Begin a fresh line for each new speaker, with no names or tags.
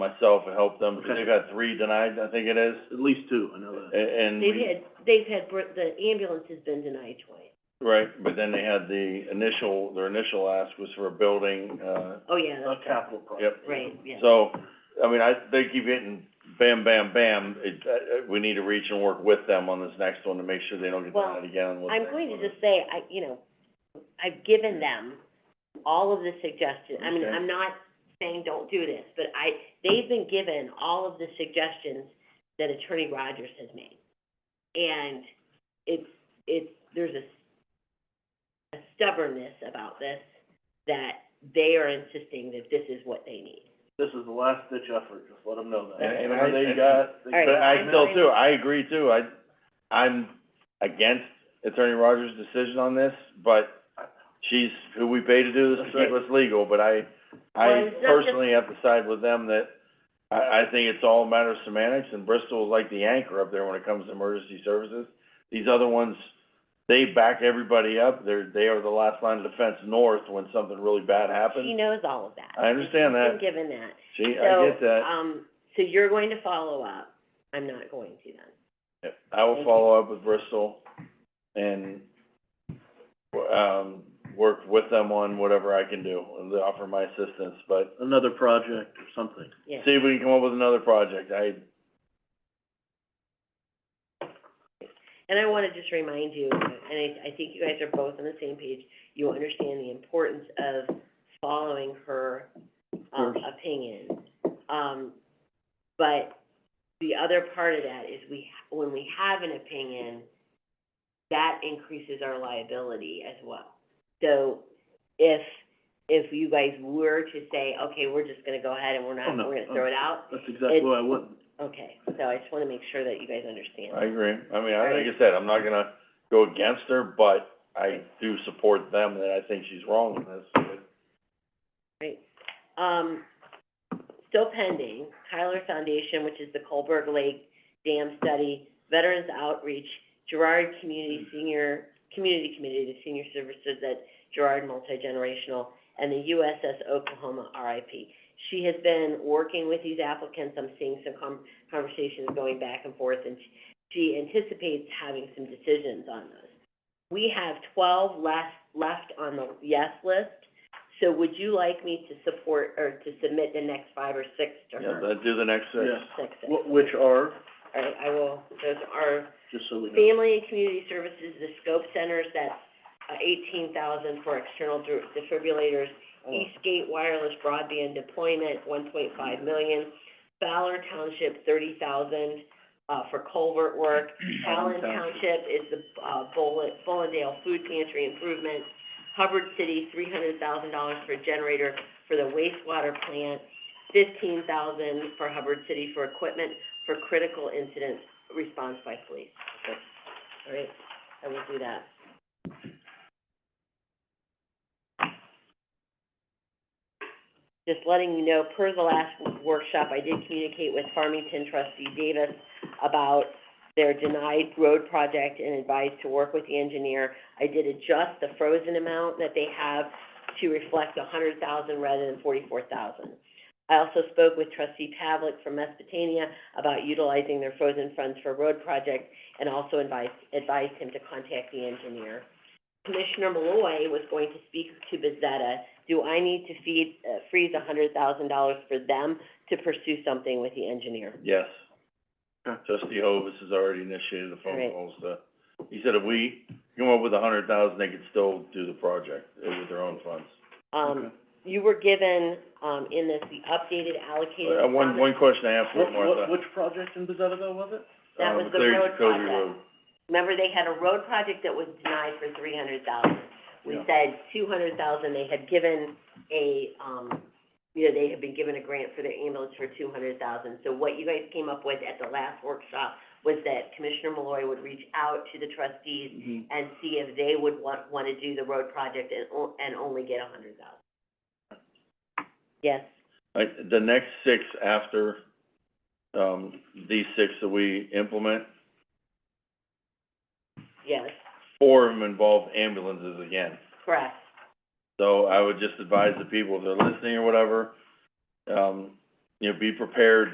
myself and help them, because they got three denied, I think it is,
At least two, I know
a-
that.
and.
They've
we-
had, they've had, br- the ambulance has been denied twice.
Right, but then they had the initial, their initial ask was for a building, uh,
Oh, yeah,
A
that's
capital project.
yep.
right, yeah.
So, I mean, I, they keep hitting bam, bam, bam, it, uh, uh, we need to reach and work with them on this next one to make sure they don't get
Well,
denied again on what's
I'm
next
going to
one.
just say, I, you know, I've given them all of the suggestions, I mean,
Okay.
I'm not saying don't do this, but I, they've been given all of the suggestions that Attorney Rogers has made. And it's, it's, there's a, a stubbornness about this, that they are insisting that this is what they need.
This is the last ditch effort, just let them know that.
And- and
Whatever
I-
they
and-
got, they
All right,
But
got.
I
I'm
still
going-
too, I agree too, I, I'm against Attorney Rogers' decision on this, but she's who we pay to do this, so it's legal, but I,
Well,
I
it's not just-
personally have to side with them that I, I think it's all a matter of semantics, and Bristol is like the anchor up there when it comes to emergency services. These other ones, they back everybody up, they're, they are the last line of defense north when something really bad
She
happens.
knows all of that.
I understand that.
She's been given that.
See, I get
So,
that,
um, so you're going to follow up, I'm not going to then.
I will follow up with Bristol and, um, work with them on whatever I can do, and offer my assistance, but
Another project or something.
Yeah.
see if we can come up with another project, I,
And I wanna just remind you, and I, I think you guys are both on the same page, you understand the importance of following her, um,
course.
opinion. Um, but the other part of that is we, ha- when we have an opinion, that increases our liability as well. So if, if you guys were to say, okay, we're just gonna go ahead and we're
Oh,
not,
no.
we're gonna throw it out,
That's exactly
It's-
what I wouldn't.
okay, so I just wanna make sure that you guys understand.
I agree. I mean, I,
Right.
like I said, I'm not gonna go against her, but I do support them, that I think she's wrong in this. but-
Great. Um, still pending, Kyler Foundation, which is the Colberg Lake Dam Study, Veterans Outreach, Gerard Community Senior, Community Committee, the Senior Services at Gerard Multi-Generational, and the USS Oklahoma RIP. She has been working with these applicants, I'm seeing some com- conversations going back and forth, and she- she anticipates having some decisions on those. We have twelve left, left on the yes list, so would you like me to support, or to submit the next five or six to
Yeah,
her?
let's do the next six.
Yeah.
Six, six.
Wh- Which are,
All right, I will, those are
just so we know.
Family and Community Services, the Scope Centers, that's uh, eighteen thousand for external dr- defibrillators. Eastgate Wireless Broadband Deployment, one point five million. Fowler Township, thirty thousand, uh, for culvert work. Allen Township is the, uh, Bolin, Bolindale Food Pantry Improvement. Hubbard City, three hundred thousand dollars for a generator for the wastewater plant. Fifteen thousand for Hubbard City for equipment for critical incident response by police. Okay. All right, I will do that. Just letting you know, per the last workshop, I did communicate with Farmington trustee Davis about their denied road project and advised to work with the engineer. I did adjust the frozen amount that they have to reflect a hundred thousand rather than forty-four thousand. I also spoke with trustee Pavlik from Mesopotamia about utilizing their frozen funds for road project and also advised, advised him to contact the engineer. Commissioner Malloy was going to speak to Bezetta. Do I need to feed, uh, freeze a hundred thousand dollars for them to pursue something with the engineer?
Yes.
Okay.
Trustee Hovis has already initiated the phone
Right.
calls to, he said if we come up with a hundred thousand, they could still do the project uh, with their own funds.
Um,
Okay.
you were given, um, in this, the updated allocated
Uh, one,
funds.
one question I have for
What, what,
Martha.
which project in Bezzetaville was it?
That
Uh,
was the
Clear-
road
Clear
project.
Road.
Remember, they had a road project that was denied for three hundred thousand. We
Yeah.
said two hundred thousand, they had given a, um, you know, they had been given a grant for their ambulance for two hundred thousand. So what you guys came up with at the last workshop was that Commissioner Malloy would reach out to the trustees
Mm-hmm.
and see if they would want, wanna do the road project and, o- and only get a hundred thousand. Yes,
Like, the next six after, um, these six that we implement,
yes,
four of them involve ambulances again.
correct.
So I would just advise the people, if they're listening or whatever, um, you know, be prepared